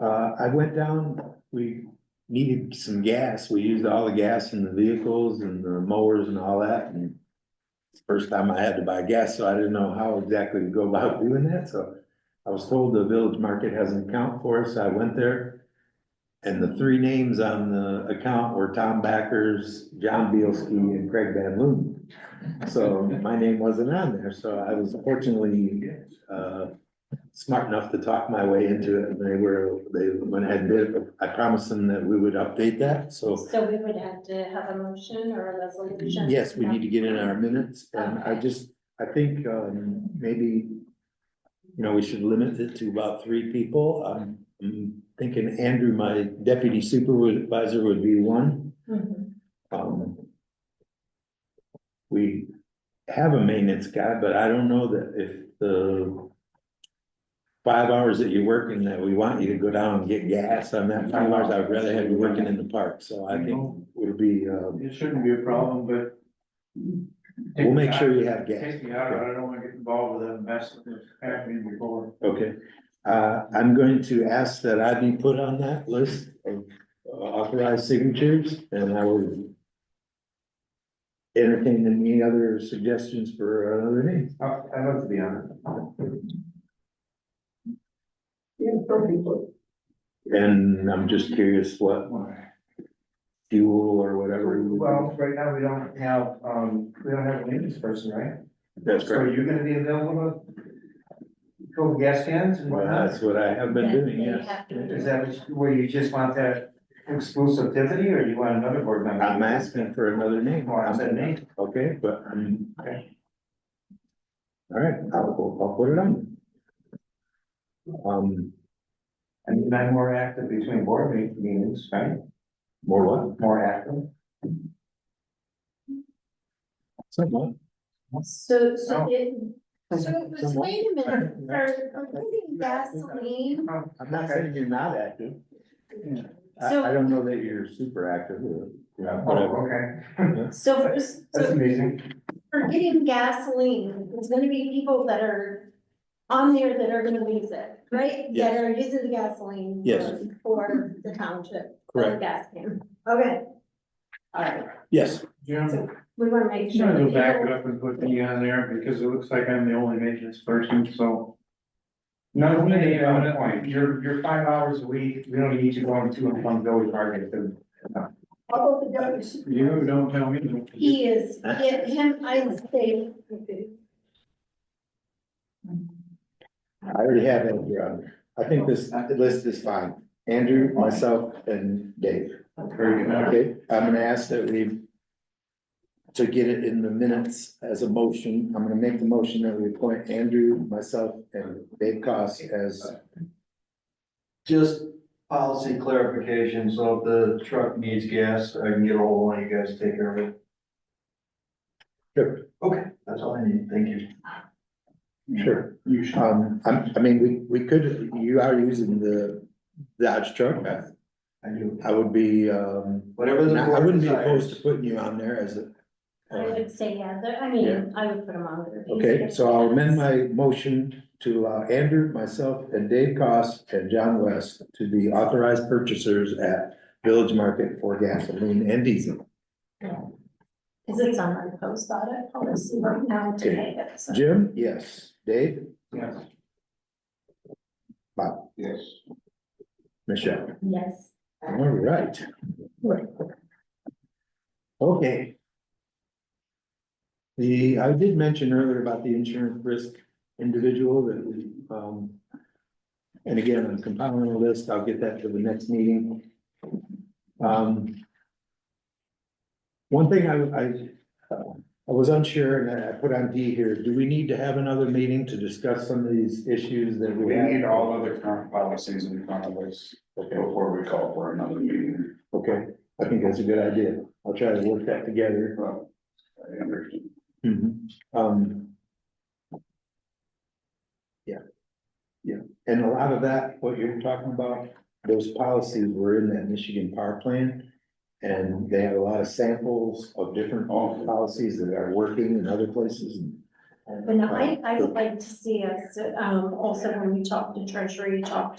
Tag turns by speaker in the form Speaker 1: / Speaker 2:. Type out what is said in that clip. Speaker 1: Uh, I went down, we needed some gas, we used all the gas in the vehicles and the mowers and all that, and. First time I had to buy gas, so I didn't know how exactly to go about doing that, so I was told the village market has an account for us, I went there. And the three names on the account were Tom Backers, John Bielski, and Craig Van Loon. So my name wasn't on there, so I was fortunately, uh, smart enough to talk my way into it, and they were, they went ahead and did it. I promised them that we would update that, so
Speaker 2: So we would have to have a motion or a resolution?
Speaker 1: yes, we need to get in our minutes, and I just, I think, um, maybe. You know, we should limit it to about three people, I'm, I'm thinking Andrew, my deputy supervisor would be one,
Speaker 2: Mhm.
Speaker 1: um. We have a maintenance guy, but I don't know that if the. Five hours that you're working, that we want you to go down and get gas on that five hours, I'd rather have you working in the park, so I think it'll be, um.
Speaker 3: It shouldn't be a problem, but.
Speaker 1: We'll make sure you have gas.
Speaker 3: Take me out, of it. I don't wanna get involved with that mess that was happening before.
Speaker 1: Okay, uh, I'm going to ask that I be put on that list of uh, authorized signatures and I will. Entertain any other suggestions for another name.
Speaker 3: I, I'd love to be on
Speaker 1: And I'm just curious what
Speaker 3: it.
Speaker 1: fuel or whatever. we would do.
Speaker 3: Well, right now, we don't have, um, we don't have a maintenance person, right?
Speaker 1: That's
Speaker 3: So
Speaker 1: correct.
Speaker 3: you're gonna be available to fill the gas cans and
Speaker 1: Well,
Speaker 3: whatnot?
Speaker 1: that's what I have been doing,
Speaker 2: Then you
Speaker 1: yes.
Speaker 2: have to-
Speaker 3: Is that what you- where you just want that exclusivity, or you want another board member?
Speaker 1: I'm asking for another name.
Speaker 3: Well, I said name.
Speaker 1: Okay, but I'm.
Speaker 3: Okay.
Speaker 1: All right, I'll, I'll put it on. Um,
Speaker 3: And I'm more active between board me- meetings, right?
Speaker 1: more what?
Speaker 3: More active?
Speaker 1: Somewhat.
Speaker 2: So, so
Speaker 3: No.
Speaker 2: it, so, so
Speaker 1: Someone-
Speaker 2: wait a minute, for, for putting gasoline,
Speaker 1: I'm not saying you're not active. I, I
Speaker 2: so,
Speaker 1: don't know that you're super active or, you know, whatever.
Speaker 3: Oh, okay,
Speaker 2: so for,
Speaker 3: that's
Speaker 2: so
Speaker 3: amazing.
Speaker 2: for getting gasoline, there's gonna be people that are on there that are gonna use it, right? That
Speaker 1: Yes.
Speaker 2: are using the gasoline.
Speaker 1: Yes.
Speaker 2: for- For the township, for the gas can, okay. All right,
Speaker 1: Yes,
Speaker 3: Yeah.
Speaker 2: so we wanna make
Speaker 3: I'm
Speaker 2: sure.
Speaker 3: gonna go back
Speaker 2: people-
Speaker 3: up and put me on there because it looks like I'm the only maintenance person, so. No, we need on that point. You're, you're five hours a week. We don't need you going to and from village market. to-
Speaker 4: How about the deputy supervisor?
Speaker 3: You don't tell me. what to do.
Speaker 2: He is, yeah, him, I would say,
Speaker 1: I already have Andrew on there. I think this list is fine. Andrew, myself and Dave.
Speaker 3: Very good.
Speaker 1: Okay, I'm gonna ask that we. To get it in the minutes as a motion, I'm gonna make the motion that we appoint Andrew, myself and Dave Cost as,
Speaker 5: Just policy clarification, so if the truck needs gas, I can get a hold of one of you guys, to take care of it.
Speaker 1: Sure.
Speaker 5: Okay, that's all I need, thank you.
Speaker 1: sure.
Speaker 3: You should.
Speaker 1: Um, I'm, I mean, we, we could, you are using the Dodge truck.
Speaker 5: I do.
Speaker 1: I would be, um,
Speaker 5: Whatever the
Speaker 1: I wouldn't be
Speaker 5: board
Speaker 1: opposed to
Speaker 5: desires.
Speaker 1: putting you on there as a. uh,
Speaker 2: I would say, yeah, there- I mean, I would put him on. there.
Speaker 1: Okay, so I'll amend my motion to allow Andrew, myself, and Dave Cost and John West to be authorized purchasers at Village Market for gasoline and diesel.
Speaker 2: Is it on our post audit policy right now today? so-
Speaker 1: Jim? Yes. Dave?
Speaker 3: Yes.
Speaker 1: Bob?
Speaker 3: Yes.
Speaker 1: Michelle?
Speaker 2: Yes.
Speaker 1: All right. Okay. The, I did mention earlier about the insurance risk individual that we, um. And again, I'm compiling a list, I'll get that to the next meeting. Um. One thing I, I, uh, I was unsure and I put on D here, do we need to have another meeting to discuss some of these issues that we
Speaker 6: We
Speaker 1: have?
Speaker 6: need all other current policies in front of us
Speaker 1: Okay.
Speaker 6: before we call for another meeting.
Speaker 1: Okay, I think that's a good idea. I'll try to work that together.
Speaker 6: Well, I understand.
Speaker 1: Um. Yeah. Yeah, and a lot of that, what you're talking about, those policies were in that Michigan Power Plan. And they had a lot of samples of different policies that are working in other places.
Speaker 2: But no, I, I would like to see us, um, also when we talk to treasury, talk